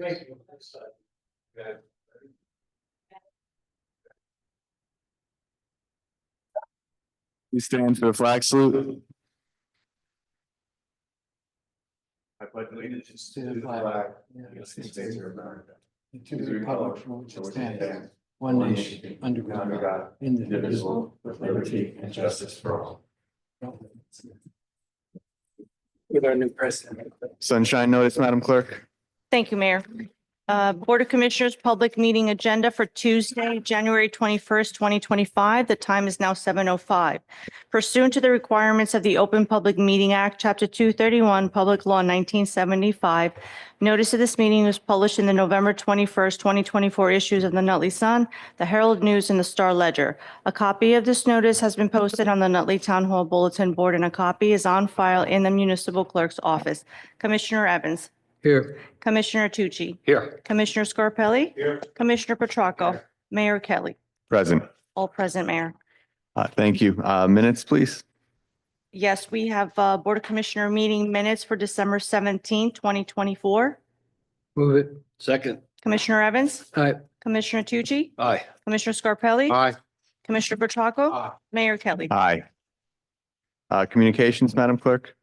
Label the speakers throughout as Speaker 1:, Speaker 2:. Speaker 1: Thank you. That's fine. Yeah.
Speaker 2: We stand for the flag salute.
Speaker 1: I pledge allegiance
Speaker 3: To the flag.
Speaker 1: United States of America,
Speaker 3: and To the republic for which it stands, one nation, under God, indivisible, with liberty and justice for all. With our new president.
Speaker 2: Sunshine notice, Madam Clerk.
Speaker 4: Thank you, Mayor. Uh, Board of Commissioners, public meeting agenda for Tuesday, January 21st, 2025. The time is now 7:05. Pursuant to the requirements of the Open Public Meeting Act, Chapter 231, Public Law 1975, notice of this meeting was published in the November 21st, 2024 issues of the Nutley Sun, the Herald News, and the Star Ledger. A copy of this notice has been posted on the Nutley Town Hall Bulletin Board, and a copy is on file in the municipal clerk's office. Commissioner Evans?
Speaker 3: Here.
Speaker 4: Commissioner Tucci.
Speaker 3: Here.
Speaker 4: Commissioner Scarpelli.
Speaker 1: Here.
Speaker 4: Commissioner Petracca. Mayor Kelly.
Speaker 2: Present.
Speaker 4: All present, Mayor.
Speaker 2: Uh, thank you. Uh, minutes, please.
Speaker 4: Yes, we have uh, Board of Commissioner meeting minutes for December 17, 2024.
Speaker 3: Move it.
Speaker 5: Second,
Speaker 4: Commissioner Evans.
Speaker 3: Aye.
Speaker 4: Commissioner Tucci.
Speaker 5: aye.
Speaker 4: Commissioner Scarpelli.
Speaker 5: Aye.
Speaker 4: Commissioner Petracca.
Speaker 3: Aye.
Speaker 4: Mayor Kelly.
Speaker 2: Aye. Uh, communications, Madam Clerk.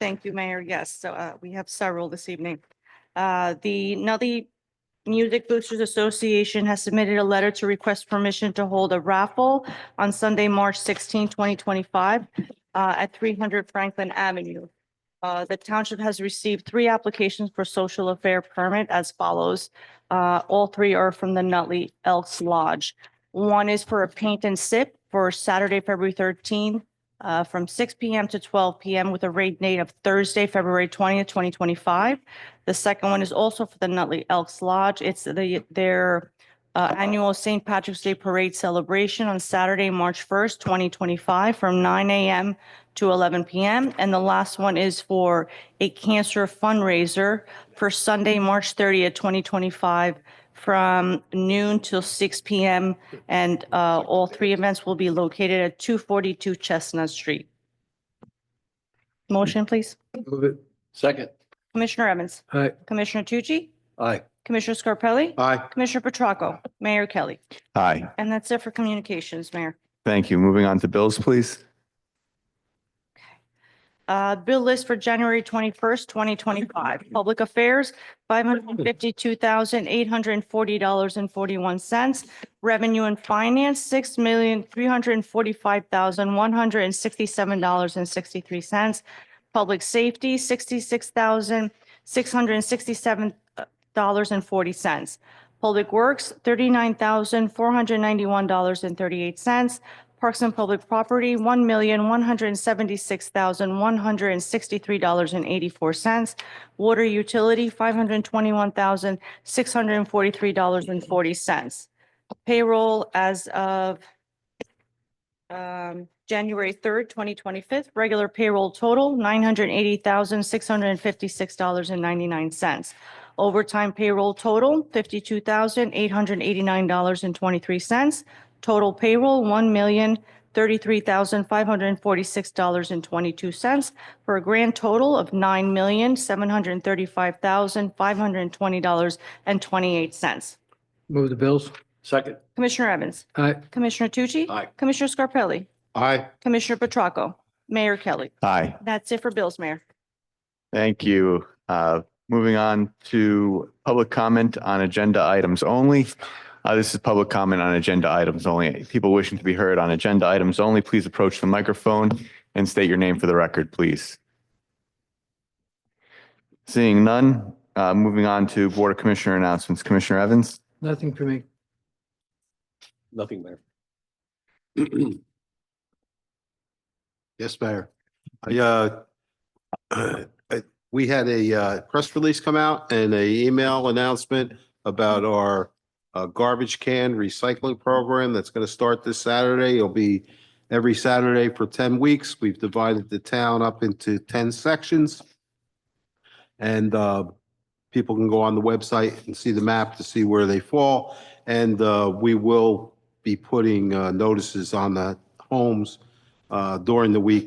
Speaker 4: Thank you, Mayor. Yes, so uh, we have several this evening. Uh, The Nutley Music Boosters Association has submitted a letter to request permission to hold a raffle on Sunday, March 16, 2025, uh, at 300 Franklin Avenue. Uh, The township has received three applications for social affair permit as follows. Uh, All three are from the Nutley Elks Lodge. One is for a paint and sip for Saturday, February 13, uh, from six PM to twelve PM with a raid date of Thursday, February twentieth, twenty twenty-five. The second one is also for the Nutley Elks Lodge. It's the, their uh, annual St. Patrick's Day Parade celebration on Saturday, March first, twenty twenty-five, from nine AM to eleven PM. And the last one is for a cancer fundraiser for Sunday, March thirtieth, twenty twenty-five, from noon till six PM and uh, all three events will be located at 242 Chestnut Street. Motion, please.
Speaker 3: Move it.
Speaker 5: Second,
Speaker 4: Commissioner Evans.
Speaker 3: Aye.
Speaker 4: Commissioner Tucci.
Speaker 5: aye.
Speaker 4: Commissioner Scarpelli.
Speaker 5: Aye.
Speaker 4: Commissioner Petracca. Mayor Kelly.
Speaker 2: Aye.
Speaker 4: And that's it for communications, Mayor.
Speaker 2: Thank you. Moving on to bills, please.
Speaker 4: Uh, Bill list for January 21st, 2025. Public Affairs, $552,840.41. Revenue and Finance, $6,345,167.63. Public Safety, uh, $66,667.40. Public Works, $39,491.38. Parks and Public Property, one million, one hundred and seventy-six thousand, one hundred and sixty-three dollars and eighty-four cents. Water Utility, five hundred and twenty-one thousand, six hundred and forty-three dollars and forty cents. Payroll as of um, January third, twenty twenty-fifth, regular payroll total, nine hundred and eighty thousand, six hundred and fifty-six dollars and ninety-nine cents. Overtime payroll total, fifty-two thousand, eight hundred and eighty-nine dollars and twenty-three cents. Total payroll, one million thirty-three thousand five hundred and forty-six dollars and twenty-two cents for a grand total of nine million seven hundred and thirty-five thousand five hundred and twenty dollars and twenty-eight cents.
Speaker 3: Move the bills.
Speaker 5: Second,
Speaker 4: Commissioner Evans,
Speaker 3: Aye.
Speaker 4: Commissioner Tucci.
Speaker 5: Aye.
Speaker 4: Commissioner Scarpelli,
Speaker 5: aye.
Speaker 4: Commissioner Petracca, Mayor Kelly.
Speaker 2: Aye.
Speaker 4: That's it for bills, Mayor.
Speaker 2: Thank you. Uh, moving on to public comment on agenda items only. Uh, this is public comment on agenda items only. People wishing to be heard on agenda items only, please approach the microphone and state your name for the record, please. Seeing none, uh, moving on to Board of Commissioner announcements. Commissioner Evans?
Speaker 3: Nothing for me.
Speaker 5: Nothing, Mayor. Yes, Mayor.
Speaker 6: I, uh, I- we had a, uh, press release come out and a email announcement about our, uh, garbage can recycling program that's going to start this Saturday. It'll be every Saturday for ten weeks. We've divided the town up into ten sections. And, uh, people can go on the website and see the map to see where they fall. And, uh, we will be putting, uh, notices on the homes, uh, during the week